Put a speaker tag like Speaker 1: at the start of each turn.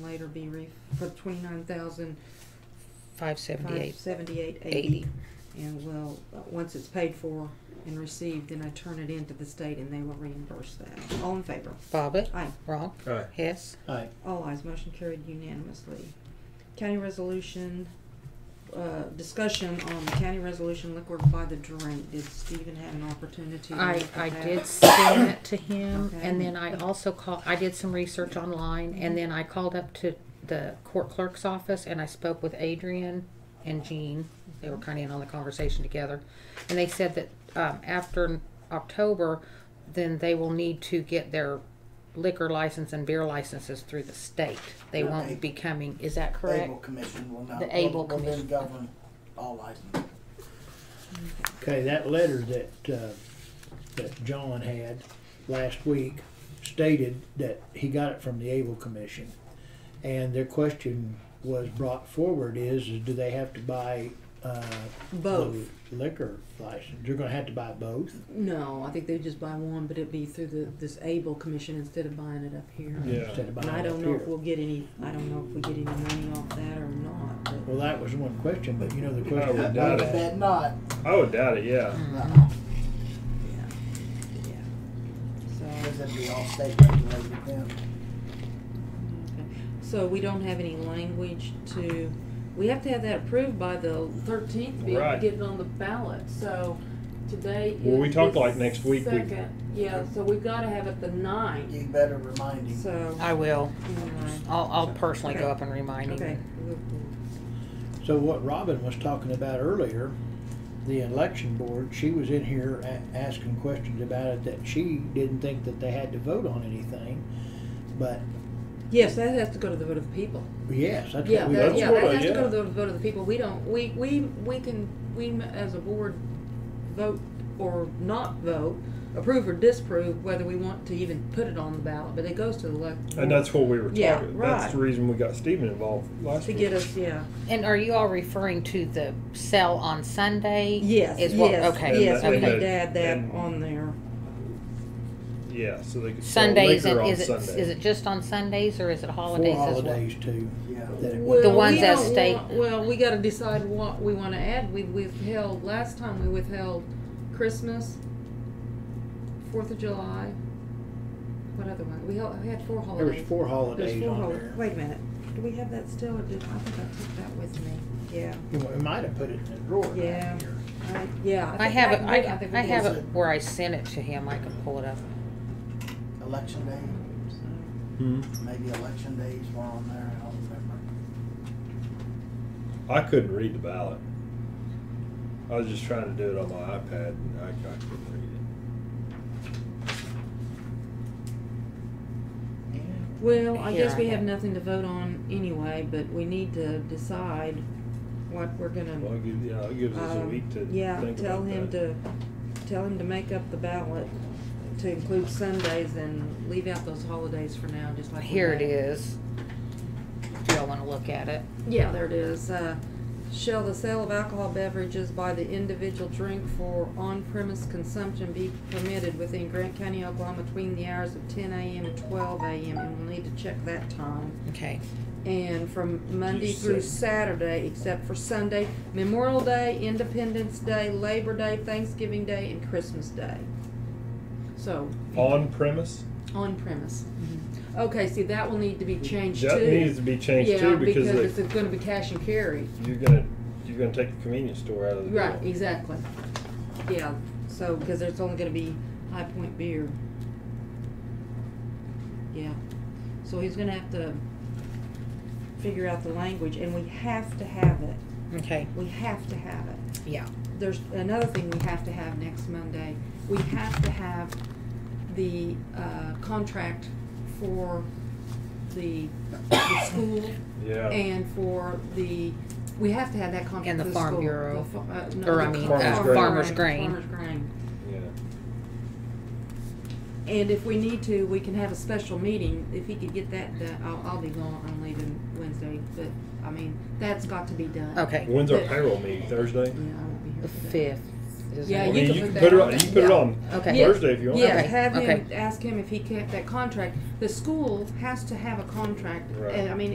Speaker 1: later be re, for twenty-nine thousand
Speaker 2: Five seventy-eight,
Speaker 1: five seventy-eight eighty.
Speaker 2: eighty.
Speaker 1: And well, uh, once it's paid for and received, then I turn it into the state and they will reimburse that. All in favor?
Speaker 2: Bobbit,
Speaker 1: Aye.
Speaker 2: Wrong.
Speaker 3: Aye.
Speaker 2: Hess,
Speaker 4: Aye.
Speaker 1: All eyes motion carried unanimously. County resolution, uh, discussion on the county resolution liquid by the drink. Did Stephen have an opportunity? to
Speaker 2: I,
Speaker 1: look at
Speaker 2: I
Speaker 1: that?
Speaker 2: did send it to him,
Speaker 1: Okay.
Speaker 2: and then I also called, I did some research online, and then I called up to the court clerk's office, and I spoke with Adrian and Jean. They were kind of in on the conversation together, and they said that, um, after October, then they will need to get their liquor license and beer licenses through the state. They
Speaker 4: Okay.
Speaker 2: won't be coming, is that correct?
Speaker 5: Able Commission will not.
Speaker 2: The Able
Speaker 5: will- will then
Speaker 2: Commission.
Speaker 5: Govern all licenses.
Speaker 4: Okay, that letter that, uh, that John had last week stated that he got it from the Able Commission. And their question was brought forward is, is do they have to buy, uh,
Speaker 1: Both.
Speaker 4: the Liquor license, you're gonna have to buy both?
Speaker 1: No, I think they just buy one, but it'd be through the, this ABLE commission instead of buying it up here.
Speaker 3: Yeah.
Speaker 4: Instead of buying
Speaker 1: And I
Speaker 4: it
Speaker 1: don't
Speaker 4: up
Speaker 1: know if
Speaker 4: here?
Speaker 1: we'll get any, I don't know if we get any money off that or not, but
Speaker 4: Well, that was one question, but you know the
Speaker 3: I
Speaker 4: question.
Speaker 3: would doubt it.
Speaker 5: That not,
Speaker 3: I would doubt it, yeah.
Speaker 5: no,
Speaker 1: yeah, yeah. So,
Speaker 5: because that'd be all state regulated then.
Speaker 1: okay. so we don't have any language to, we have to have that approved by the thirteenth
Speaker 6: be able to
Speaker 3: Right.
Speaker 6: get it on the ballot, so today is.
Speaker 3: Well, we talked
Speaker 6: the
Speaker 3: like next week we-
Speaker 6: Second, yeah, so we've gotta have it the ninth.
Speaker 5: You better remind him.
Speaker 1: So,
Speaker 2: I will,
Speaker 1: anyway,
Speaker 2: I'll, I'll personally go
Speaker 1: Okay.
Speaker 2: up and remind
Speaker 1: okay.
Speaker 2: him.
Speaker 1: we'll- we'll-
Speaker 4: So what Robin was talking about earlier, the election board, she was in here a- asking questions about it that she didn't think that they had to vote on anything. But
Speaker 1: Yes, that has to go to the vote of the people.
Speaker 4: yes, that's
Speaker 1: Yeah,
Speaker 4: what we.
Speaker 1: that,
Speaker 3: That's
Speaker 1: yeah,
Speaker 3: what
Speaker 1: that
Speaker 3: I-
Speaker 1: has to go
Speaker 3: yeah.
Speaker 1: to the vote of the people. We don't, we, we, we can, we m- as a board vote or not vote, approve or disapprove whether we want to even put it on the ballot, but it goes to the elect.
Speaker 3: And that's what we were talking.
Speaker 1: Mm-hmm. Yeah, right.
Speaker 3: That's the reason we got Stephen involved last
Speaker 1: To
Speaker 3: week.
Speaker 1: get us, yeah.
Speaker 2: And are you all referring to the sell on Sunday?
Speaker 1: Yes,
Speaker 2: Is what,
Speaker 1: yes,
Speaker 2: okay,
Speaker 1: yes, we
Speaker 3: And
Speaker 1: need
Speaker 2: okay.
Speaker 1: to add that
Speaker 3: and-
Speaker 1: on there.
Speaker 3: Yeah, so they could sell
Speaker 2: Sundays,
Speaker 3: liquor
Speaker 2: and
Speaker 3: on
Speaker 2: is it,
Speaker 3: Sunday.
Speaker 2: is it just on Sundays or is it holidays
Speaker 4: Four
Speaker 2: as well?
Speaker 4: holidays too.
Speaker 5: Yeah.
Speaker 4: that it
Speaker 1: Well,
Speaker 4: was-
Speaker 2: The ones
Speaker 1: we
Speaker 2: that
Speaker 1: don't
Speaker 2: state-
Speaker 1: want- Well, we gotta decide what we wanna add. We withheld, last time we withheld Christmas, Fourth of July. What other one? We held- we had four
Speaker 4: There was
Speaker 1: holidays.
Speaker 4: four
Speaker 1: There's
Speaker 4: holidays
Speaker 1: four
Speaker 4: on
Speaker 1: hol-
Speaker 4: there.
Speaker 1: Wait a minute, do we have that still, or did, I think I took that with me, yeah,
Speaker 4: You know, We might have put it in the drawer down
Speaker 1: Yeah.
Speaker 4: here.
Speaker 1: I, yeah.
Speaker 2: I have it,
Speaker 1: think
Speaker 2: I,
Speaker 1: did. think we
Speaker 2: I
Speaker 1: did.
Speaker 2: have
Speaker 5: use
Speaker 2: it
Speaker 5: it.
Speaker 2: where I sent it to him, I can pull it up.
Speaker 5: Election day,
Speaker 3: Hmm.
Speaker 5: maybe election days were on there, I don't remember.
Speaker 3: I couldn't read the ballot. I was just trying to do it on my iPad, and I, I couldn't read
Speaker 1: Well, I
Speaker 2: Here,
Speaker 1: guess
Speaker 2: I
Speaker 1: we
Speaker 2: have-
Speaker 1: have nothing to vote on anyway, but we need to decide what we're
Speaker 3: it. Well,
Speaker 1: gonna,
Speaker 3: it gives, yeah, it gives us a
Speaker 1: um,
Speaker 3: week to
Speaker 1: yeah,
Speaker 3: think
Speaker 1: tell
Speaker 3: about
Speaker 1: him
Speaker 3: that.
Speaker 1: to, tell him to make up the ballot to include Sundays and leave out those holidays for now, just like. we
Speaker 2: Here it
Speaker 1: did.
Speaker 2: is. Do y'all wanna look at it?
Speaker 1: Yeah, there it is. Uh, shall the sale of alcohol beverages by the individual drink for on-premise consumption be permitted within Grant County, Oklahoma between the hours of ten AM and twelve AM? And we'll need to check that time.
Speaker 2: Okay,
Speaker 1: And from Monday
Speaker 3: You
Speaker 1: through
Speaker 3: said-
Speaker 1: Saturday, except for Sunday, Memorial Day, Independence Day, Labor Day, Thanksgiving Day, and Christmas Day. So,
Speaker 3: On premise,
Speaker 1: on-premise.
Speaker 3: Mm-hmm.
Speaker 1: Okay, see, that will need to be changed too.
Speaker 3: that needs to be changed
Speaker 1: Yeah,
Speaker 3: too because,
Speaker 1: because
Speaker 3: they-
Speaker 1: it's gonna be cash and carry.
Speaker 3: you're gonna you're gonna take the convenience store out of the
Speaker 1: Right,
Speaker 3: deal.
Speaker 1: exactly. Yeah, so, because there's only gonna be High Point beer. Yeah, so he's gonna have to figure out the language, and we have to have it.
Speaker 2: okay,
Speaker 1: We have to have it.
Speaker 2: yeah.
Speaker 1: There's another thing we have to have next Monday. We have to have the, uh, contract for the, the school
Speaker 3: Yeah.
Speaker 1: and for the, we have to have that contract
Speaker 2: And the
Speaker 1: for
Speaker 2: Farm
Speaker 1: school.
Speaker 2: Bureau.
Speaker 1: The fa- uh, no,
Speaker 2: Or,
Speaker 1: the
Speaker 2: I mean,
Speaker 1: farm-
Speaker 3: uh,
Speaker 1: farm-
Speaker 2: Farmer's Grain.
Speaker 1: Farmer's grain.
Speaker 3: yeah.
Speaker 1: And if we need to, we can have a special meeting, if he could get that, done, I'll, I'll be gone, I'm leaving Wednesday, but, I mean, that's got to be done.
Speaker 2: Okay,
Speaker 3: When's our
Speaker 1: But-
Speaker 3: payroll meeting? Thursday.
Speaker 1: Yeah, I won't be here
Speaker 2: the
Speaker 1: for that.
Speaker 2: fifth is.
Speaker 1: Yeah,
Speaker 3: I
Speaker 1: you
Speaker 3: mean,
Speaker 1: can
Speaker 3: you
Speaker 1: put
Speaker 3: can
Speaker 1: that
Speaker 3: put it
Speaker 1: on
Speaker 3: on. You
Speaker 1: there.
Speaker 3: can put it
Speaker 1: Yeah.
Speaker 3: on
Speaker 2: Okay.
Speaker 1: Yeah.
Speaker 3: Thursday if you want.
Speaker 1: Yeah,
Speaker 2: Okay,
Speaker 1: have
Speaker 2: okay.
Speaker 1: him, ask him if he kept that contract, the school has to have a contract,
Speaker 3: Right.
Speaker 1: and, I mean,